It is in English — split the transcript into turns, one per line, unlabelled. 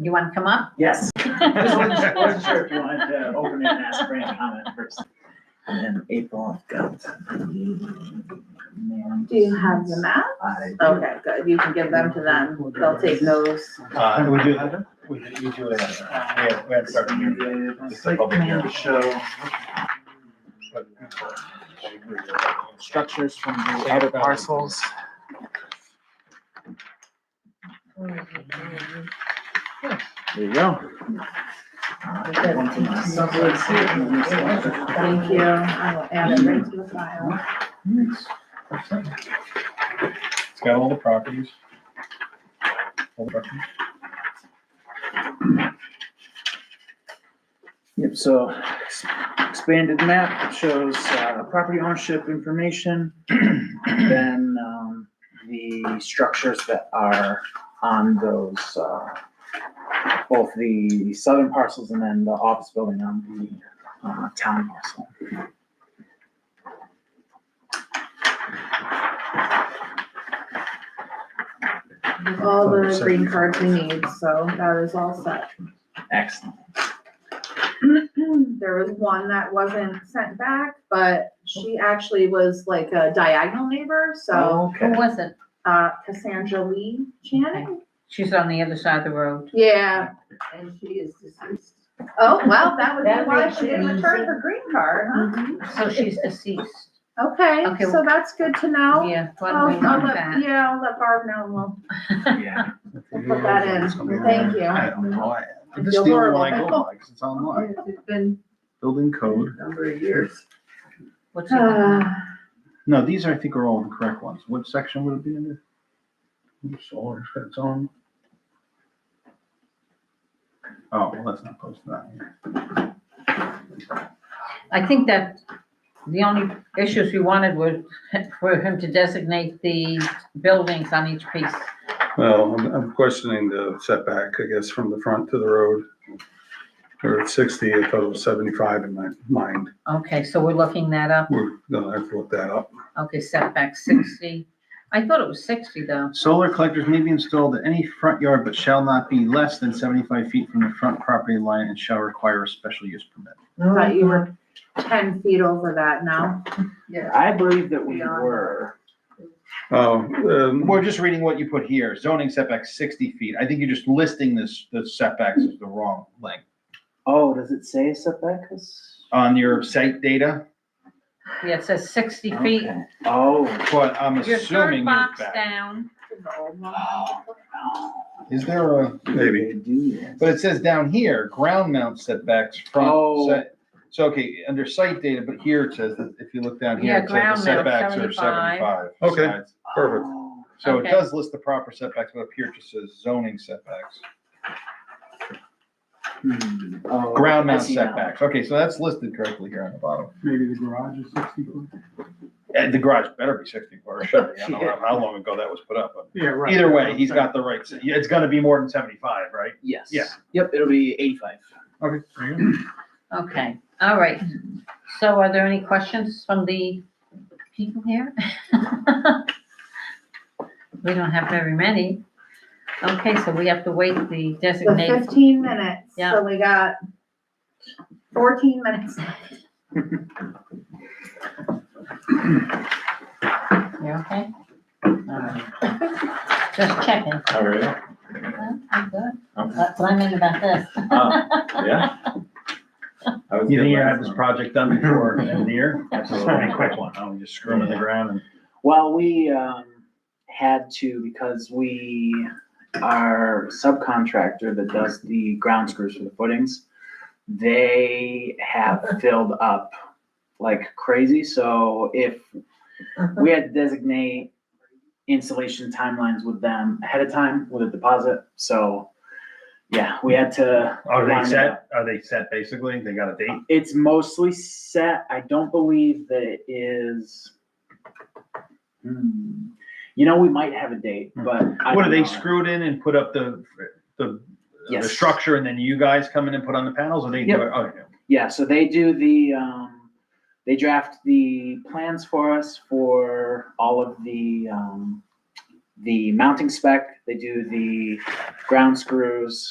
You want to come up?
Yes. I just wasn't sure- wasn't sure if you wanted to open it and ask for any comment first. And then April, I've got. Do
Do you have the map?
I.
Oh.
Okay, good, you can give them to them, they'll take those.
Uh, we do, we do, we do it, yeah, we have certain here. It's a public hearing.
Show Uh, structures from the outer parcels. There you go. uh,
Thank you, I will add it right to the file.
It's got all the properties. All the properties.
Yep, so s- expanded map shows uh, property ownership information. Then um, the structures that are on those, uh, both the southern parcels and then the office building on the uh, town parcel.
All the green cards we need, so that is all set.
Excellent.
There was one that wasn't sent back, but she actually was like a diagonal neighbor, so,
Who
Okay.
was it?
uh, Cassandra Lee Channing?
She's on the other side of the road.
Yeah,
And she is deceased.
oh, well, that would be
That
why
makes
she didn't
it
return
easy.
her green card, huh?
So she's deceased.
Okay,
Mm-hmm. Okay.
so that's good to know.
Yeah,
I'll-
why do we
I'll
know
let-
that?
Yeah, I'll let Barb know, and we'll,
Yeah.
we'll put that in, thank you.
I don't know, I, I'm
Feel
just dealing with what I go
horrible.
by, 'cause it's online,
It's been
building
a
code.
number of years.
What's it called?
Ah,
No, these I think are all the correct ones. What section would it be in? Oops, all it's got its own. Oh, well, let's not post that. here.
I think that the only issues we wanted were for him to designate the buildings on each piece.
Well, I'm, I'm questioning the setback, I guess, from the front to the road. Or at sixty, I thought it was seventy-five in my mind.
Okay, so we're looking that up.
We're gonna have to look that up.
Okay, setback sixty. I thought it was sixty though.
Solar collectors may be installed at any front yard, but shall not be less than seventy-five feet from the front property line and shall require a special use permit.
Thought you were ten feet over that now.
Yeah.
I believe that we were.
Oh, um,
We're just reading what you put here, zoning setback sixty feet. I think you're just listing this, the setbacks as the wrong length.
Oh, does it say setback? is-
On your site data,
Yeah, it says sixty feet.
Okay. Oh.
but I'm
Your third
assuming you're
box
back.
down.
Oh, no.
Is there a,
Maybe.
but it says down here, ground mount setbacks
Oh.
from, site- so, okay, under site data, but here it says that if you look down
Yeah,
here, it says
ground
the
mount,
setbacks are
75.
seventy-five.
Okay.
sides.
Perfect.
Oh.
So it
Okay.
does list the proper setbacks, but up here it just says zoning setbacks.
Hmm. Oh,
Ground mount
I see now.
setbacks. Okay, so that's listed correctly here on the bottom.
Maybe the garage is sixty foot?
And the garage better be sixty foot or should be. I don't know how long ago that was put up, but
Yeah, right.
either way, he's got the right, yeah, it's gonna be more than seventy-five, right?
Yes.
Yeah.
Yep, it'll be eighty-five.
Okay.
Okay, all right. So are there any questions from the people here? We don't have very many. Okay, so we have to wait the
The
designated,
fifteen minutes,
Yeah.
so we got fourteen minutes.
you okay? All right. Just checking.
All right.
Well, I'm good.
Okay.
That's what I mean about this.
Oh, Yeah. I was
You
good
think you
last
have this
time.
project done before end of the year?
Absolutely.
Just a quick one. I'm just screwing in the ground and.
Well, we, um, had to because we, our subcontractor that does the ground screws for the footings, they have filled up like crazy, so if we had to designate installation timelines with them ahead of time with a deposit, so, yeah, we had to.
Are
line
they
it up.
set? Are they set basically? They got a date?
It's mostly set. I don't believe that it is. Hmm. You know, we might have a date, but. I
Hmm. What are
don't
they
know.
screwed in and put up the, the, the
Yes.
structure and then you guys come in and put on the panels or they do
Yep.
it? Okay.
Yeah, so they do the, um, they draft the plans for us for all of the, um, the mounting spec. They do the ground screws,